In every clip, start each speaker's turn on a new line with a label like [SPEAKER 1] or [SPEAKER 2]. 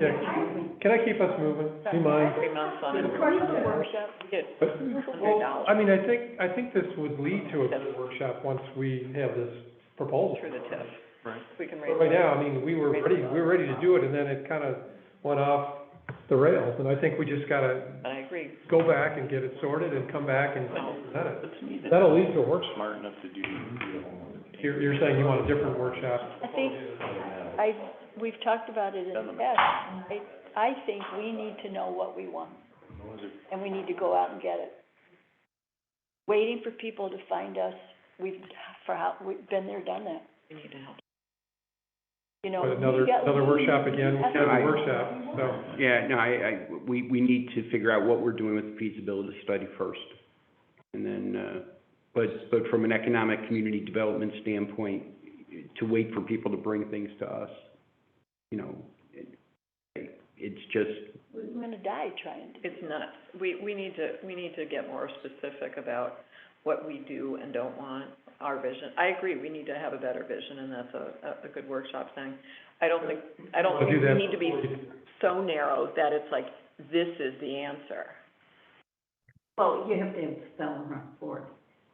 [SPEAKER 1] Yeah, can I keep us moving? Do you mind?
[SPEAKER 2] Three months on it. Workshop, we get hundred
[SPEAKER 1] Well, I
[SPEAKER 2] dollars
[SPEAKER 1] mean, I think, I think this would lead to a good workshop once we have this proposal.
[SPEAKER 2] through the TIF.
[SPEAKER 3] Right.
[SPEAKER 2] We can raise.
[SPEAKER 1] But right now, I mean, we were ready, we were ready to do it, and then it kind of went off the rails, and I think we just gotta
[SPEAKER 2] I agree.
[SPEAKER 1] go back and get it sorted and come back and
[SPEAKER 2] No.
[SPEAKER 1] present it.
[SPEAKER 3] But to me, that's
[SPEAKER 1] That'll lead to a workshop.
[SPEAKER 3] smart enough to do.
[SPEAKER 1] You're, you're saying you want a different workshop?
[SPEAKER 4] I think, I, we've talked about it in the past. I, I think we need to know what we want, and we need to go out and get it. Waiting for people to find us, we've, for how, we've been there, done that,
[SPEAKER 2] We need to help.
[SPEAKER 4] you know.
[SPEAKER 1] But another,
[SPEAKER 4] we got-
[SPEAKER 1] another workshop again, we have a
[SPEAKER 5] I-
[SPEAKER 1] workshop, so.
[SPEAKER 5] Yeah, no, I, I, we, we need to figure out what we're doing with the feasibility study first. And then, uh, but, but from an economic community development standpoint, to wait for people to bring things to us, you know, it, it's just,
[SPEAKER 4] We're gonna die trying to.
[SPEAKER 2] It's nuts. We, we need to, we need to get more specific about what we do and don't want, our vision. I agree, we need to have a better vision, and that's a, a, a good workshop thing. I don't think, I don't
[SPEAKER 1] We'll do
[SPEAKER 2] think we
[SPEAKER 1] that
[SPEAKER 2] need to be
[SPEAKER 1] before we-
[SPEAKER 2] so narrow that it's like, this is the answer.
[SPEAKER 6] Well, you have to have spelling report,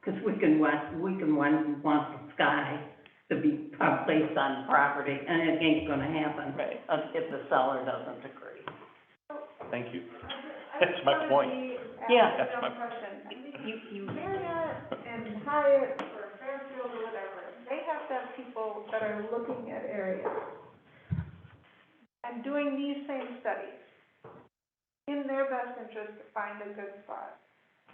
[SPEAKER 6] because we can want, we can want, want the sky to be uh, placed on property, and it ain't gonna happen.
[SPEAKER 2] Right.
[SPEAKER 6] uh, If the seller doesn't agree.
[SPEAKER 3] Thank you. That's my point.
[SPEAKER 6] Yeah,
[SPEAKER 3] That's my.
[SPEAKER 6] you, you,
[SPEAKER 7] Marriott and Hyatt or Fairfield or whatever, they have to have people that are looking at areas and doing these same studies in their best interest to find a good spot.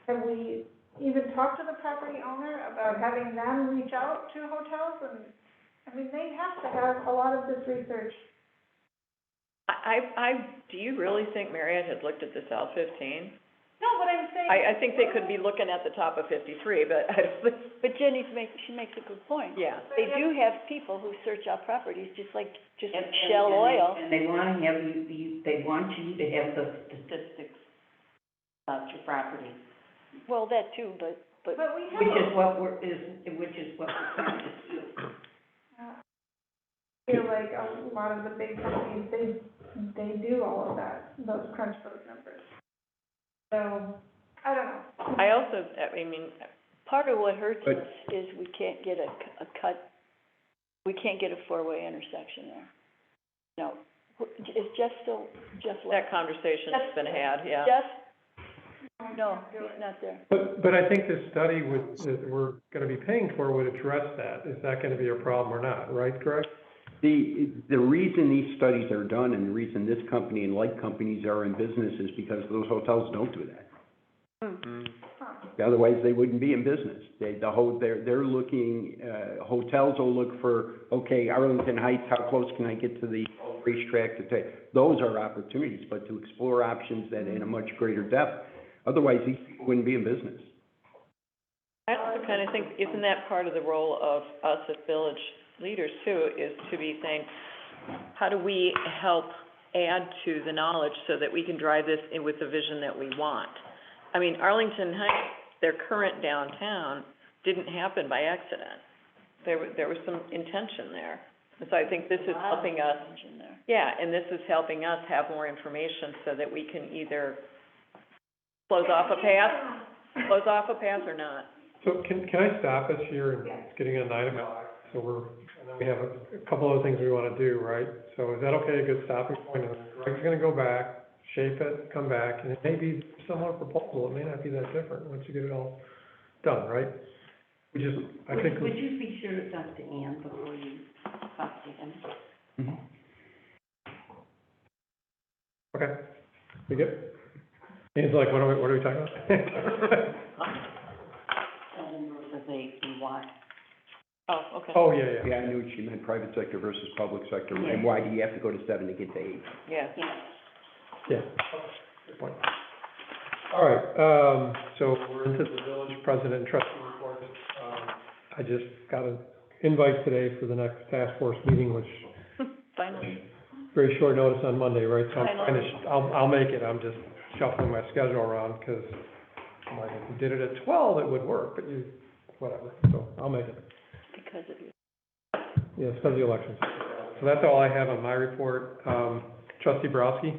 [SPEAKER 7] Have we even talked to the property owner about having them reach out to hotels and, I mean, they have to have a lot of this research.
[SPEAKER 2] I, I, I, do you really think Marriott had looked at the South fifteen?
[SPEAKER 7] No, but I'm saying.
[SPEAKER 2] I, I think they could be looking at the top of fifty-three, but I don't think,
[SPEAKER 4] But Jenny makes, she makes a good point.
[SPEAKER 2] yeah.
[SPEAKER 4] They do have people who search out properties, just like, just
[SPEAKER 6] And-
[SPEAKER 4] like
[SPEAKER 6] and-
[SPEAKER 4] Shell
[SPEAKER 6] and they-
[SPEAKER 4] Oil.
[SPEAKER 6] And they wanna have you, you, they want you to have the statistics about your property,
[SPEAKER 4] Well, that too, but, but
[SPEAKER 7] But we
[SPEAKER 6] which
[SPEAKER 7] have,
[SPEAKER 6] is what we're, is, which is what we're trying to do.
[SPEAKER 7] I feel like a lot of the big companies, they, they do all of that, those crunch those numbers. So, I don't know.
[SPEAKER 2] I also, I mean,
[SPEAKER 4] Part of what hurts
[SPEAKER 5] But-
[SPEAKER 4] us is we can't get a, c- a cut, we can't get a four-way intersection there. No, Wh- is Jeff still, Jeff
[SPEAKER 2] that
[SPEAKER 4] left?
[SPEAKER 2] conversation's been had, yeah.
[SPEAKER 4] Jeff? No, he's not there.
[SPEAKER 1] But, but I think this study would, that we're gonna be paying for would address that. Is that gonna be a problem or not, right, Greg?
[SPEAKER 5] the, the reason these studies are done and the reason this company and like companies are in business is because those hotels don't do that. Otherwise, they wouldn't be in business. They, the whole, they're, they're looking, uh, hotels will look for, okay, Arlington Heights, how close can I get to the racetrack to take? Those are opportunities, but to explore options that in a much greater depth, otherwise these people wouldn't be in business.
[SPEAKER 2] I also kind of think, isn't that part of the role of us as village leaders too, is to be saying, how do we help add to the knowledge so that we can drive this in with the vision that we want? I mean, Arlington Heights, their current downtown, didn't happen by accident. There wa- there was some intention there. And so I think this is helping us
[SPEAKER 4] In there.
[SPEAKER 2] Yeah, and this is helping us have more information so that we can either close off a path, close off a path or not.
[SPEAKER 1] So can, can I stop us here? and It's getting on nine o'clock, so we're, and then we have a, a couple other things we wanna do, right? So is that okay, a good stopping point? And Greg's gonna go back, shape it, come back, and it may be similar proposal, it may not be that different once you get it all done, right? We just, I think,
[SPEAKER 6] Would, would you be sure to talk to Ann before you talk to him?
[SPEAKER 1] okay, we good? He's like, what are we, what are we talking about?
[SPEAKER 6] Tell him where they, and why.
[SPEAKER 2] Oh, okay.
[SPEAKER 1] Oh, yeah, yeah.
[SPEAKER 5] Yeah, I knew what you meant, private sector versus public sector, and why do you have to go to seven to get to eight?
[SPEAKER 2] Yeah.
[SPEAKER 6] Yeah.
[SPEAKER 1] Yeah, good point. All right, um, so we're into the village president and trustee report. Um, I just got an invite today for the next task force meeting, which
[SPEAKER 2] Finally.
[SPEAKER 1] very short notice on Monday, right? So I'm trying to, sh- I'll, I'll make it, I'm just shuffling my schedule around, because I'm like, if you did it at twelve, it would work, but you, whatever, so I'll make it.
[SPEAKER 4] Because of you.
[SPEAKER 1] Yeah, it's because of the elections. So that's all I have on my report. Um, Trustee Browski?